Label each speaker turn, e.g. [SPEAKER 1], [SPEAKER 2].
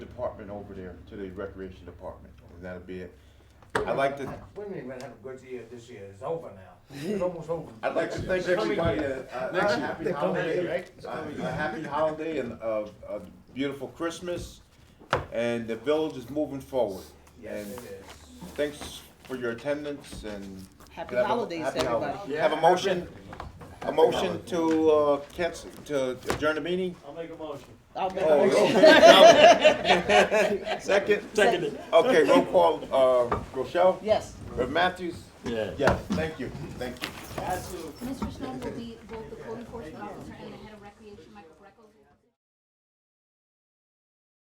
[SPEAKER 1] department over there, to the recreation department, and that'll be it. I'd like to,
[SPEAKER 2] We may even have a good year this year, it's over now, it's almost over.
[SPEAKER 1] I'd like to thank everybody, uh, a happy
[SPEAKER 2] They're coming here,
[SPEAKER 1] holiday,
[SPEAKER 2] right?
[SPEAKER 1] a a happy holiday and a, a beautiful Christmas, and the village is moving forward.
[SPEAKER 2] Yes,
[SPEAKER 1] And
[SPEAKER 2] it is.
[SPEAKER 1] Thanks for your attendance and.
[SPEAKER 3] Happy
[SPEAKER 1] Have a-
[SPEAKER 3] holidays,
[SPEAKER 1] happy
[SPEAKER 3] everybody.
[SPEAKER 1] holidays. Have a motion, a motion to, uh, cancel, to adjourn the meeting?
[SPEAKER 4] I'll make a motion.
[SPEAKER 3] I'll make a
[SPEAKER 1] Oh,
[SPEAKER 3] motion.
[SPEAKER 1] okay. Second?
[SPEAKER 3] Seconded.
[SPEAKER 1] Okay, roll call, uh, Rochelle,
[SPEAKER 3] Yes.
[SPEAKER 1] Rev Matthews?
[SPEAKER 4] Yeah.
[SPEAKER 1] Yes, thank you, thank you.
[SPEAKER 4] Absolutely.
[SPEAKER 5] Mr. Snow will be, will